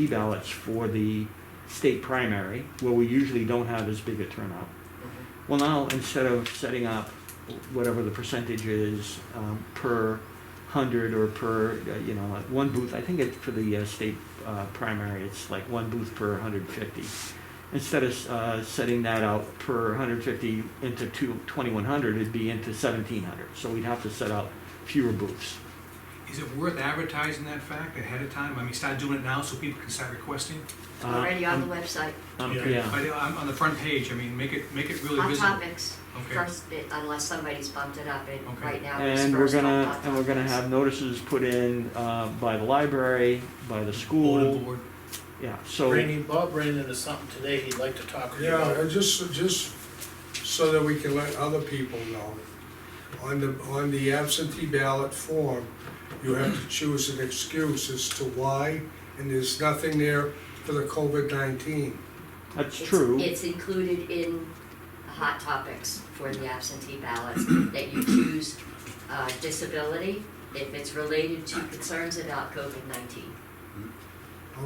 T-ballots for the state primary, where we usually don't have as big a turnout. Well, now, instead of setting up whatever the percentage is um, per hundred or per, uh, you know, like one booth, I think it, for the uh, state uh, primary, it's like one booth per 150. Instead of uh, setting that out per 150 into two, 2100, it'd be into 1700. So we'd have to set out fewer booths. Is it worth advertising that fact ahead of time? I mean, start doing it now so people can start requesting? Uh, already on um, the website, um, Yeah. yeah. But uh, on, on the front page, I mean, make it, make it really hot visible. topics, Okay. first, bit, unless somebody's bumped it up, and Okay. right now it's And we're first on hot gonna, topics. and we're gonna have notices put in, uh, by the library, by the Bulletin school, board. yeah, so, Randy, Bob ran into something today he'd like to talk to you Yeah, about. and just, just so that we can let other people know. On the, on the absentee ballot form, you have to choose an excuse as to why, and there's nothing there for the COVID nineteen. that's It's- true. It's included in the hot topics for the absentee ballots, that you choose uh, disability if it's related to concerns about COVID-19.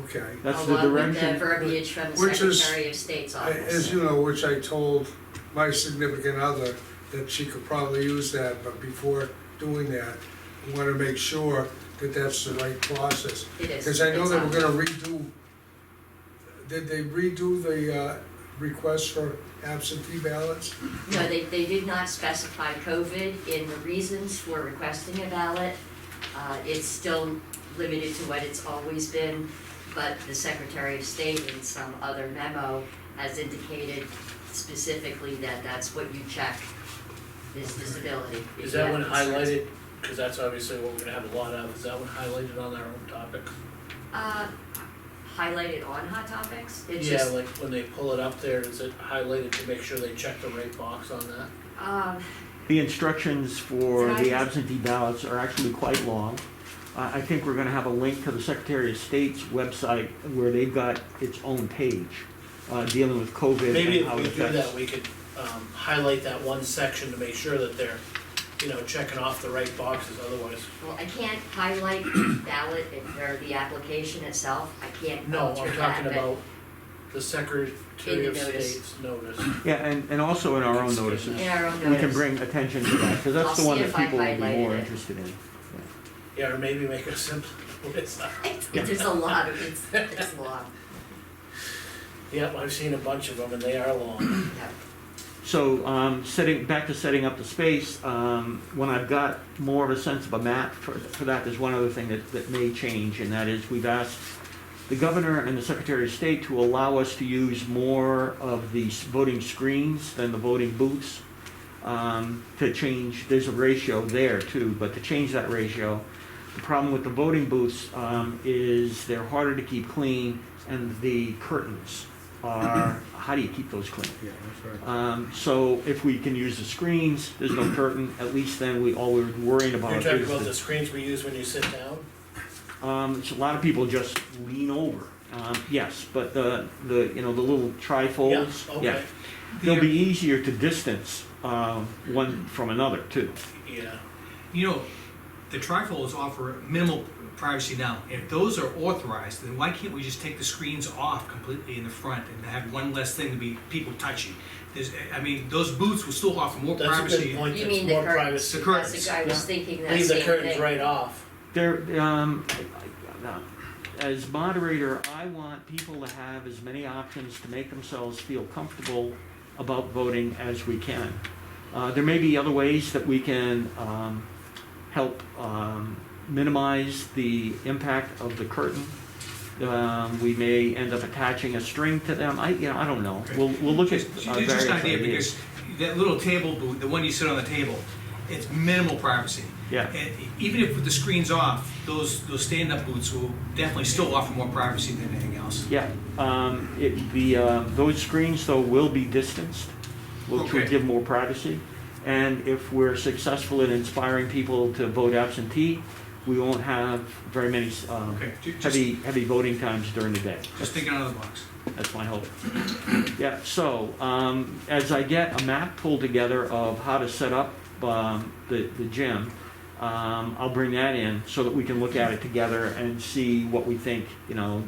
Okay. That's the Along with the direction, verbiage from the Which is- Secretary of State's As office. you know, which I told my significant other that she could probably use that, but before doing that, I wanna make sure that that's the right process. It is. Because I know It's they on. were gonna redo, did they redo the uh, request for absentee ballots? No, they, they did not specify COVID in the reasons for requesting a ballot. Uh, It's still limited to what it's always been, but the Secretary of State in some other memo has indicated specifically that that's what you check, is disability. if Is you that have one concerns. highlighted? Cause that's obviously what we're gonna have a lot of. Is that one highlighted on our own topic? Uh, Highlighted on Hot Topics? It's Yeah, just, like when they pull it up there, is it highlighted to make sure they check the right box on that? um, the instructions for Can I the just- absentee ballots are actually quite long. I, I think we're gonna have a link to the Secretary of State's website where they've got its own page, uh, dealing with COVID and Maybe if how we it do that, affects. we could, um, highlight that one section to make sure that they're, you know, checking off the right boxes, otherwise. well, I can't highlight the ballot and- or the application itself. I can't No, alter I'm that, talking but- about the Secretary In of the notice. State's notice. Yeah, and, and also in our own notices, In our own we can notice. bring attention to that, cause I'll that's the see one if that I people will be more highlighted it. interested in. Yeah, or maybe make a simple list. There's a lot of, it's, it's long, Yep, I've seen a bunch of them and they are long. yeah. So, um, setting, back to setting up the space, um, when I've got more of a sense of a map for, for that, there's one other thing that, that may change, and that is we've asked the governor and the secretary of state to allow us to use more of the s- voting screens than the voting booths. Um, to change, there's a ratio there too, but to change that ratio, the problem with the voting booths, um, is they're harder to keep clean, and the curtains are, how do you keep those clean? Yeah, that's right. Um, so if we can use the screens, there's no curtain, at least then we, all we're worrying about You're is. talking about the the- screens we use when you sit down? Um, so a lot of people just lean over, um, yes, but the, the, you know, the little trifolds, Yeah, yeah. okay, They'll be easier to distance, um, one from another too. yeah. You know, the trifolds offer minimal privacy now. If those are authorized, then why can't we just take the screens off completely in the front and have one less thing to be people touching? There's, I mean, those booths will still offer more That's a good privacy. point, You there's mean the more curtains. The privacy. That's curtains. the- I Yeah. was thinking that Leave the same curtains thing. right off. There, um, I- I- as moderator, I want people to have as many options to make themselves feel comfortable about voting as we can. Uh, there may be other ways that we can, um, help, um, minimize the impact of the curtain. Um, we may end up attaching a string to them, I, you know, I don't know, we'll, we'll look at uh, Just, various just an idea, because that little table booth, the one you sit on the table, it's minimal privacy. Yeah. And e, even if with the screens off, those, those stand-up booths will definitely still offer more privacy than anything else. Yeah, um, it, the, uh, those screens though will be distanced, which will Okay. give more privacy. And if we're successful in inspiring people to vote absentee, we won't have very many, um, Okay, ju- just, heavy, heavy voting times during the day. just thinking out of the box. That's my hope. Yeah, so, um, as I get a map pulled together of how to set up, um, the, the gym, um, I'll bring that in so that we can look at it together and see what we think, you know,